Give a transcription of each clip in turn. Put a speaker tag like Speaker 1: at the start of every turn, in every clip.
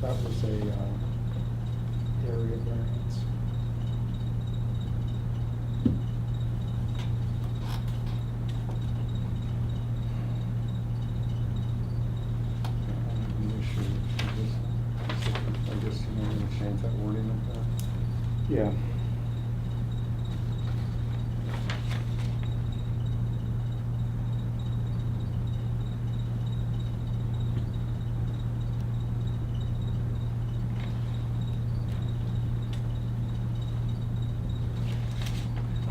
Speaker 1: That was a, um, area variance.
Speaker 2: I have an issue. I just- I guess you want me to change that wording up there?
Speaker 1: Yeah.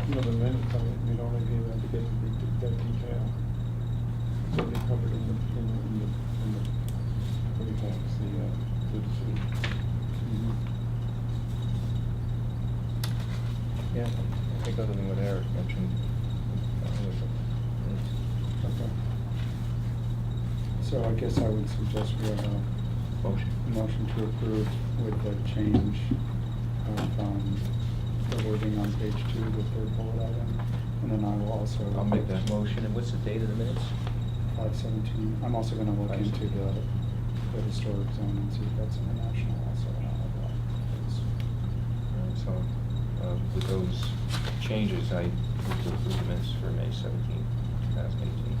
Speaker 2: You know, the minutes, I mean, we don't have even to get into de- that detail. So they covered in the, in the, in the, in the, what do you call it, the, uh, the Mm-hmm. decision.
Speaker 3: Yeah, I think other than what Eric mentioned. uh,
Speaker 2: Okay. So I guess I would suggest we have a
Speaker 3: Motion.
Speaker 2: motion to approve with the change of, um, the wording on page two, the third bullet item. And then I will also.
Speaker 3: I'll make that motion, and what's the date of the minutes?
Speaker 2: Five seventeen, I'm also gonna look
Speaker 3: Five
Speaker 2: into the,
Speaker 3: seventeen.
Speaker 2: the historic zone and see if that's international also. and all of that. It's-
Speaker 3: Alright, So, uh, with those changes, I move to approve the minutes for May seventeenth, two thousand eighteen.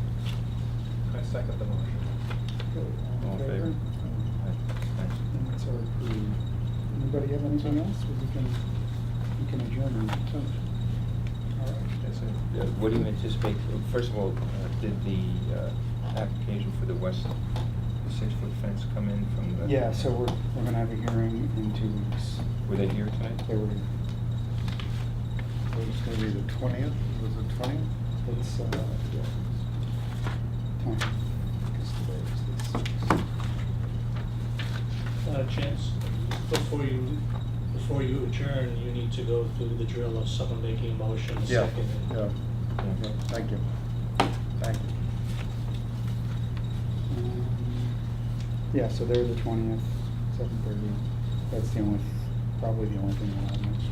Speaker 4: I second the motion.
Speaker 2: okay,
Speaker 3: All in favor?
Speaker 2: And so approved. Anybody have anything else? We can, we can adjourn. All right.
Speaker 3: That's it. Uh, What do you anticipate, first of all, uh, did the uh, application for the west six-foot fence come in from the?
Speaker 2: Yeah, so we're, we're gonna have a hearing in two weeks.
Speaker 3: Were they here tonight?
Speaker 2: They were,
Speaker 4: So it's gonna be the twentieth, was it twentieth?
Speaker 2: it's, uh, yeah. Time. Because today is the sixth.
Speaker 5: Uh, Chance, before you, before you adjourn, you need to go through the drill of someone making a motion, a
Speaker 4: Yeah,
Speaker 5: second.
Speaker 4: yeah,
Speaker 3: Yeah.
Speaker 4: yeah, thank you. Thank you.
Speaker 2: Um, Yeah, so they're the twentieth, seven thirty. That's the only, probably the only thing I'll have next.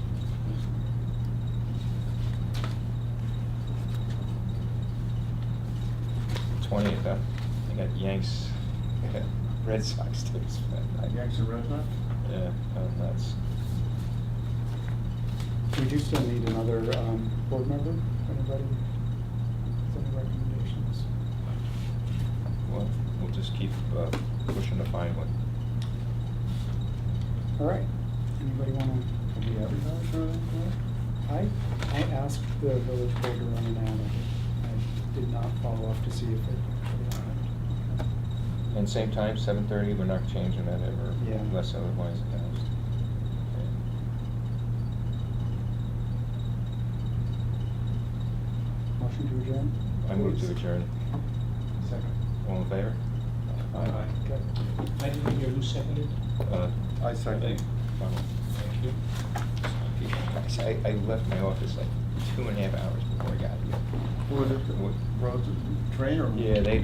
Speaker 3: Twentieth, huh? I got Yanks, Red Sox tickets for that night.
Speaker 4: Yanks and Red Sox?
Speaker 3: Yeah, I'm nuts.
Speaker 2: We do still need another, um, board member, anybody? Is there any recommendations?
Speaker 3: Well, we'll just keep uh, pushing to find one.
Speaker 2: All right, anybody wanna?
Speaker 4: Have we advertised or anything?
Speaker 2: I, I asked the village board to run an ad. I did not follow up to see if it.
Speaker 3: And same time, seven thirty, we're not changing that ever,
Speaker 2: Yeah.
Speaker 3: unless otherwise announced.
Speaker 2: Motion to adjourn?
Speaker 3: I move to adjourn.
Speaker 4: Second.
Speaker 3: All in favor?
Speaker 4: Aye.
Speaker 2: Okay.
Speaker 5: I didn't hear who seconded.
Speaker 3: Uh,
Speaker 4: I second.
Speaker 3: Ronald.
Speaker 5: Thank you.
Speaker 3: I, I left my office like two and a half hours before I got here.
Speaker 4: Was it, was it train or?
Speaker 3: Yeah, they,